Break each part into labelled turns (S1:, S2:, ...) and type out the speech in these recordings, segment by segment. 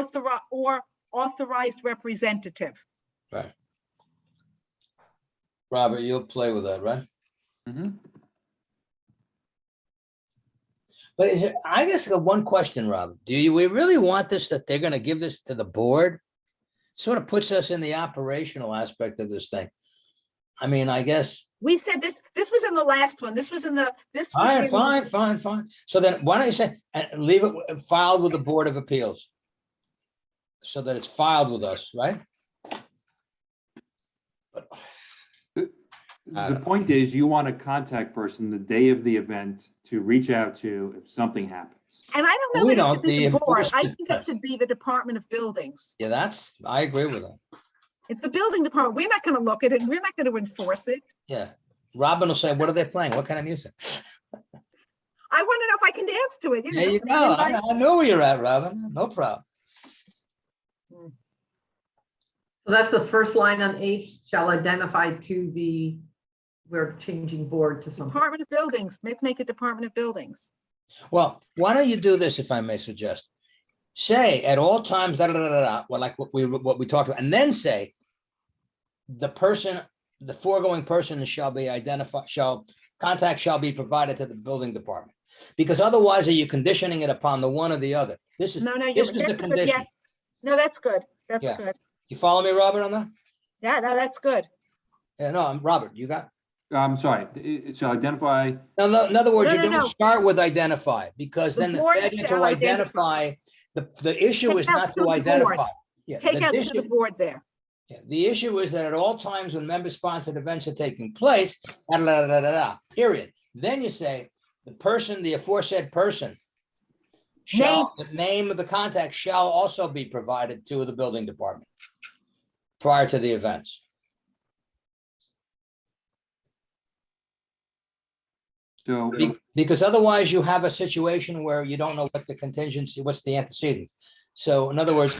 S1: authori- or authorized representative.
S2: Right. Robert, you'll play with that, right?
S3: Mhm.
S2: But is it, I guess I got one question, Rob. Do you, we really want this, that they're gonna give this to the board? Sort of puts us in the operational aspect of this thing. I mean, I guess,
S1: We said this, this was in the last one. This was in the, this was
S2: fine,
S1: in the
S2: fine, fine, fine. So then why don't you say, and leave it w- filed with the Board of Appeals? So that it's filed with us, right? I
S3: The
S2: don't-
S3: point is, you want a contact person the day of the event to reach out to if something happens.
S1: And I don't know
S2: We
S1: that it
S2: don't,
S1: should be
S2: the
S1: the board. I
S2: enforcement.
S1: think that should be the Department of Buildings.
S2: Yeah, that's, I agree with that.
S1: It's the building department. We're not going to look at it. and We're not going to enforce it.
S2: Yeah. Robin will say, what are they playing? What kind of music?
S1: I want to know if I can dance to it. you
S2: There
S1: know?
S2: you go. I
S1: Invite-
S2: I know where you're at, Robin. No problem.
S4: So that's the first line on H, shall identify to the, we're changing board to something.
S1: Department of Buildings. Let's make it Department of Buildings.
S2: Well, why don't you do this, if I may suggest? Say at all times, da, da, da, da, da, well, like what we, what we talked about, and then say the person, the foregoing person shall be identified, shall, contact shall be provided to the building department. Because otherwise, are you conditioning it upon the one or the other? This is,
S1: No, no, you're,
S2: this is
S1: that's
S2: the
S1: a good, yeah.
S2: condition.
S1: No, that's good. That's
S2: Yeah.
S1: good.
S2: You follow me, Robert, on that?
S1: Yeah, no, that's good.
S2: Yeah, no, I'm, Robert, you got?
S3: I'm sorry, it- it- so identify,
S2: In other- in other words, you
S1: No, no,
S2: don't
S1: no.
S2: start with identify, because
S1: The
S2: then the
S1: board
S2: failure to
S1: shall identify.
S2: identify, the, the issue
S1: Take
S2: is
S1: out
S2: not
S1: to the
S2: to
S1: board.
S2: identify. Yeah,
S1: Take
S2: the
S1: out to the
S2: issue-
S1: board there.
S2: yeah, The issue is that at all times when member-sponsored events are taking place, da, da, da, da, da, da, period. Then you say, the person, the aforesaid person shall, the name of the contact shall also be provided to the building department prior to the events.
S3: so
S2: Be- Because otherwise you have a situation where you don't know what the contingency, what's the antecedent. So in other words,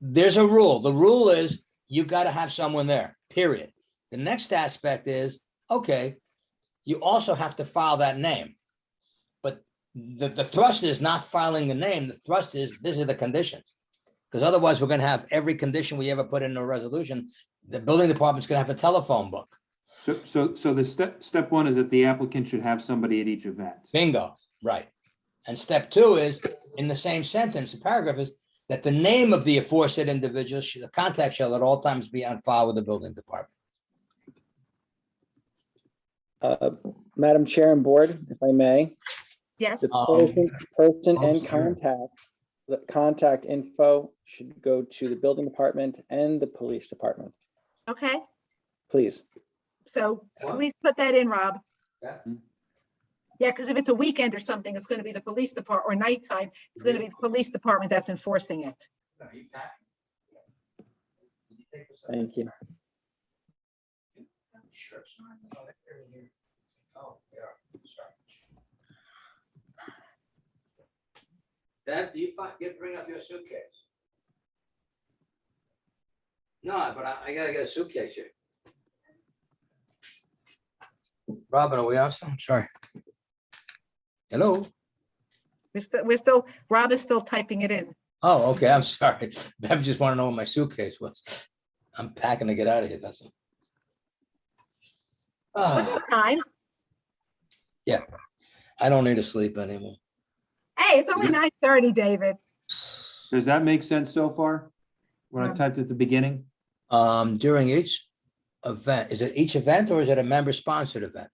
S2: there's a rule. The rule is you got to have someone there, period. The next aspect is, okay, you also have to file that name. But the, the thrust is not filing the name. The thrust is, these are the conditions. Because otherwise we're going to have every condition we ever put in a resolution. The building department's going to have a telephone book.
S3: So, so, so the step, step one is that the applicant should have somebody at each event.
S2: Bingo, right. And step two is, in the same sentence, the paragraph is that the name of the aforesaid individual, sh- the contact shall at all times be on file with the building department.
S5: Uh, Madam Chair and Board, if I may,
S1: Yes.
S5: the
S2: Um,
S5: person- person
S2: oh,
S5: and
S2: sure.
S5: contact, the contact info should go to the building department and the police department,
S1: Okay.
S5: please.
S1: So
S2: Wow.
S1: please put that in, Rob.
S2: Yeah.
S1: Yeah, because if it's a weekend or something, it's going to be the police department or nighttime, it's going to be the police department that's enforcing it.
S5: Thank you.
S2: That, do you find, you bring up your suitcase? No, but I, I gotta get a suitcase here. Robin, are we awesome? Sorry. Hello?
S1: We're still, we're still, Rob is still typing it in.
S2: Oh, okay, I'm sorry. I just want to know where my suitcase was. I'm packing to get out of here, that's all.
S1: What's
S3: Uh.
S2: Ah,
S1: the time?
S2: I don't need to sleep anymore.
S1: Hey, it's only nine thirty, David.
S3: Does that make sense so far? What I
S1: Um,
S3: typed at the beginning?
S2: Um, during each event, is it each event or is it a member sponsored event?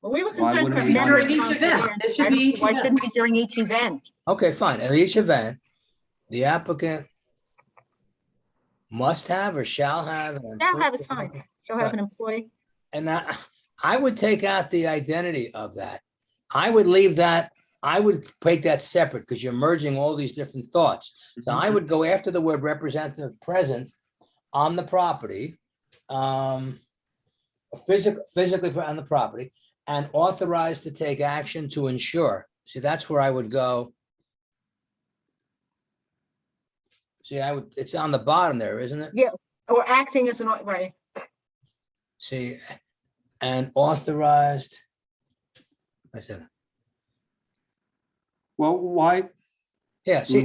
S1: Well, we were
S3: Why
S1: concerned.
S3: wouldn't
S1: for
S3: we want
S1: members
S3: it?
S4: During each event.
S1: concerned.
S4: It should
S1: I don't
S4: be
S1: see
S4: each
S1: Why
S4: event.
S1: shouldn't it be during each event?
S2: Okay, fine. At each event, the applicant must have or shall have. an
S1: Shall have is
S2: employee-
S1: fine. She'll have an employee.
S2: And I, I would take out the identity of that. I would leave that, I would make that separate because you're merging all these different thoughts. So
S3: Mm-hmm.
S2: I would go after the word representative present on the property. um, Physical, physically pre- on the property and authorized to take action to ensure. See, that's where I would go. See, I would, it's on the bottom there, isn't it?
S1: Or acting as an, au- right,
S2: See, and authorized. I said,
S3: Well, why,
S2: yeah, see,